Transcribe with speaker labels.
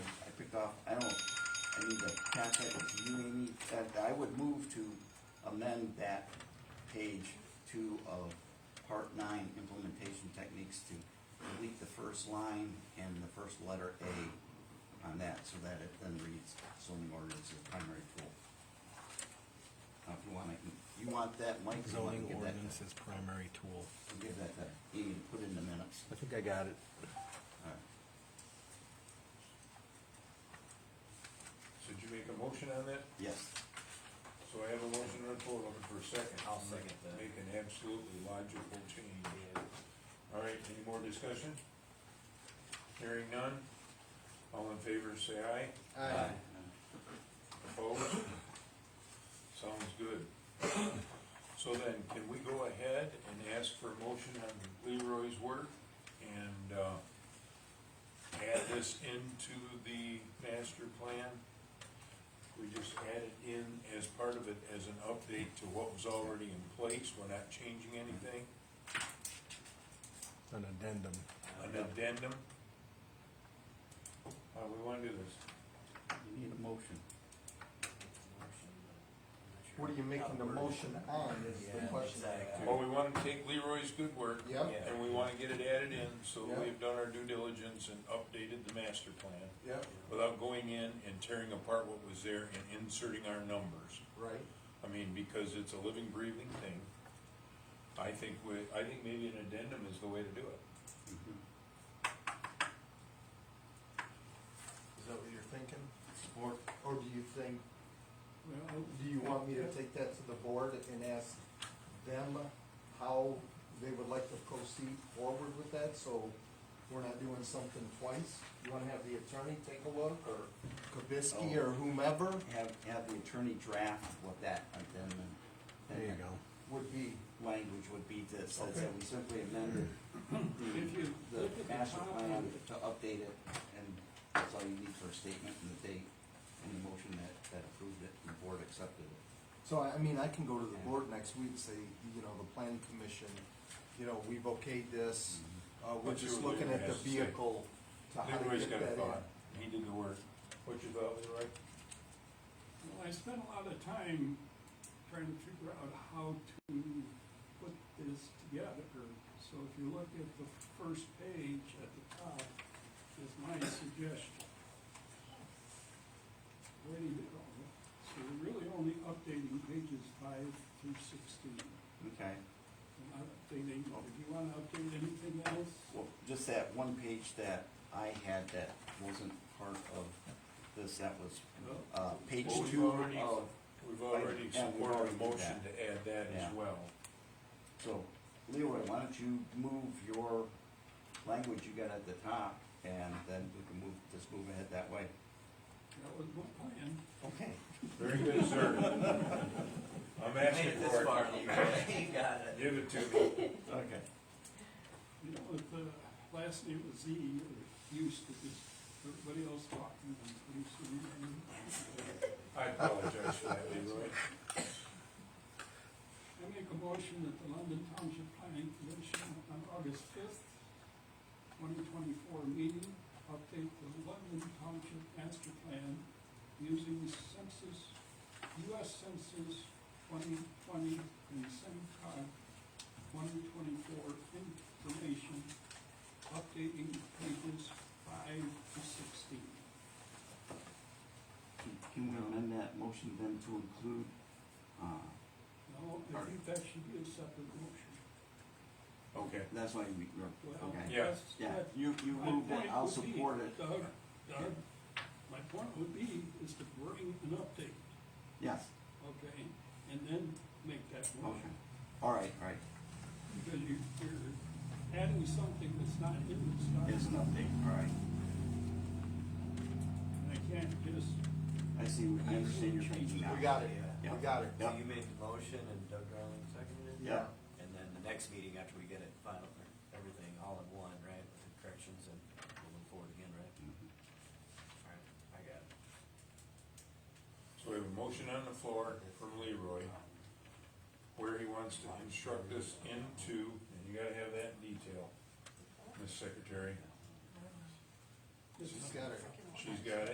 Speaker 1: committee, the contact with you, Amy, that I would move to amend that page two of part nine, implementation techniques, to delete the first line and the first letter A on that, so that it then reads zoning ordinance as primary tool. Now, if you want, I can, you want that, Mike, so I can
Speaker 2: Zoning
Speaker 1: give that,
Speaker 2: ordinance is primary tool.
Speaker 1: I'll give that to Amy, to put in the minutes.
Speaker 2: I think I got it.
Speaker 1: All right.
Speaker 3: So did you make a motion on that?
Speaker 1: Yes,
Speaker 3: So I have a motion on the floor, looking for a second.
Speaker 4: I'll second that.
Speaker 3: Make an absolutely logical change. All right, any more discussion? Hearing none? All in favor, say aye.
Speaker 1: Aye.
Speaker 3: Opposed? Sounds good. So then, can we go ahead and ask for a motion on Leroy's work and, uh, add this into the master plan? We just add it in as part of it as an update to what was already in place, we're not changing anything,
Speaker 2: An addendum.
Speaker 3: an addendum? How do we wanna do this?
Speaker 1: you need a motion.
Speaker 5: What are you making the motion on is the
Speaker 4: Yeah,
Speaker 5: question.
Speaker 4: exactly.
Speaker 3: Well, we wanna take Leroy's good work
Speaker 5: Yep,
Speaker 4: Yeah.
Speaker 3: And we wanna get it added in, so
Speaker 5: Yeah.
Speaker 3: we've done our due diligence and updated the master plan
Speaker 5: yep,
Speaker 3: without going in and tearing apart what was there and inserting our numbers.
Speaker 5: right.
Speaker 3: I mean, because it's a living, breathing thing. I think we, I think maybe an addendum is the way to do it.
Speaker 1: Mhm.
Speaker 5: Is that what you're thinking?
Speaker 1: Or
Speaker 5: Or do you think, do you want me to take that to the board and ask them how they would like to proceed forward with that, so we're not doing something twice? You wanna have the attorney take a look, or Kabisky, or
Speaker 4: Oh.
Speaker 5: whomever
Speaker 1: have, have the attorney draft what that addendum.
Speaker 2: There you go.
Speaker 5: would be,
Speaker 1: Language would be that says that we simply amended the, the master plan to update it, and that's all you need for a statement and the date, and the motion that, that approved it, and the board accepted it.
Speaker 5: so I, I mean, I can go to the board next week and say, you know, the planning commission, you know, we've okayed this, uh, we're
Speaker 3: But
Speaker 5: just
Speaker 3: you're-
Speaker 5: looking at the
Speaker 3: yes, say.
Speaker 5: vehicle to how to
Speaker 3: Leroy's
Speaker 5: get
Speaker 3: got a
Speaker 5: that in.
Speaker 3: thought, he did the work. What's your thought, Leroy?
Speaker 6: Well, I spent a lot of time trying to figure out how to put this together. So if you look at the first page at the top, is my suggestion. Where do you go? So we're really only updating pages five through sixteen.
Speaker 1: Okay,
Speaker 6: We're not updating, if you wanna update anything else,
Speaker 1: well, just that one page that I had that wasn't part of this, that was,
Speaker 6: well,
Speaker 1: uh, page
Speaker 3: Well, we've
Speaker 1: two
Speaker 3: already-
Speaker 1: of,
Speaker 3: We've already
Speaker 1: Yeah, we've
Speaker 3: supported
Speaker 1: already
Speaker 3: a
Speaker 1: did
Speaker 3: motion
Speaker 1: that.
Speaker 3: to add that
Speaker 1: Yeah.
Speaker 3: as well.
Speaker 1: so, Leroy, why don't you move your language you got at the top, and then we can move, just move ahead that way.
Speaker 6: that was my plan.
Speaker 1: Okay.
Speaker 3: Very good, sir. I'm
Speaker 4: I made
Speaker 3: asking
Speaker 4: it
Speaker 3: for
Speaker 4: this
Speaker 3: it.
Speaker 4: far, you got it.
Speaker 3: Give it to me.
Speaker 1: Okay.
Speaker 6: You know, if the last name was Z, you're used to just everybody else talking and producing and.
Speaker 3: I apologize for that, Leroy.
Speaker 6: I make a motion that the London Township Planning Commission on August fifth, twenty twenty-four meeting, update the London Township master plan using census, US Census twenty twenty and SEMCOG twenty twenty-four information, updating pages five to sixteen.
Speaker 1: Can we amend that motion then to include, uh,
Speaker 6: No, I think that should be a separate motion.
Speaker 3: Okay.
Speaker 1: that's why you, you're-
Speaker 6: Well,
Speaker 1: okay.
Speaker 3: Yeah.
Speaker 6: that's-
Speaker 1: Yeah,
Speaker 6: that's-
Speaker 1: you, you
Speaker 6: My
Speaker 1: moved it,
Speaker 6: point
Speaker 1: I'll
Speaker 6: would be,
Speaker 1: support it.
Speaker 6: Doug, Doug, my point would be, is to bring an update,
Speaker 1: Yes,
Speaker 6: okay, and then make that
Speaker 1: okay.
Speaker 6: motion.
Speaker 1: All right, all right.
Speaker 6: Because you, you're adding something that's not in the start.
Speaker 1: It's an update, all right.
Speaker 6: And I can't just,
Speaker 1: I see, I understand your thinking now.
Speaker 5: We got it,
Speaker 1: Yeah.
Speaker 5: we got it.
Speaker 4: So you made the motion and Doug Darling seconded it?
Speaker 1: Yeah.
Speaker 4: And then the next meeting after we get it final, everything all in one, right, with the corrections and we'll move forward again, right?
Speaker 1: Mm-hmm.
Speaker 4: Alright, I got it.
Speaker 3: So we have a motion on the floor from Leroy, where he wants to instruct us into, and you gotta have that in detail, Miss Secretary.
Speaker 5: She's got it.
Speaker 3: She's got it.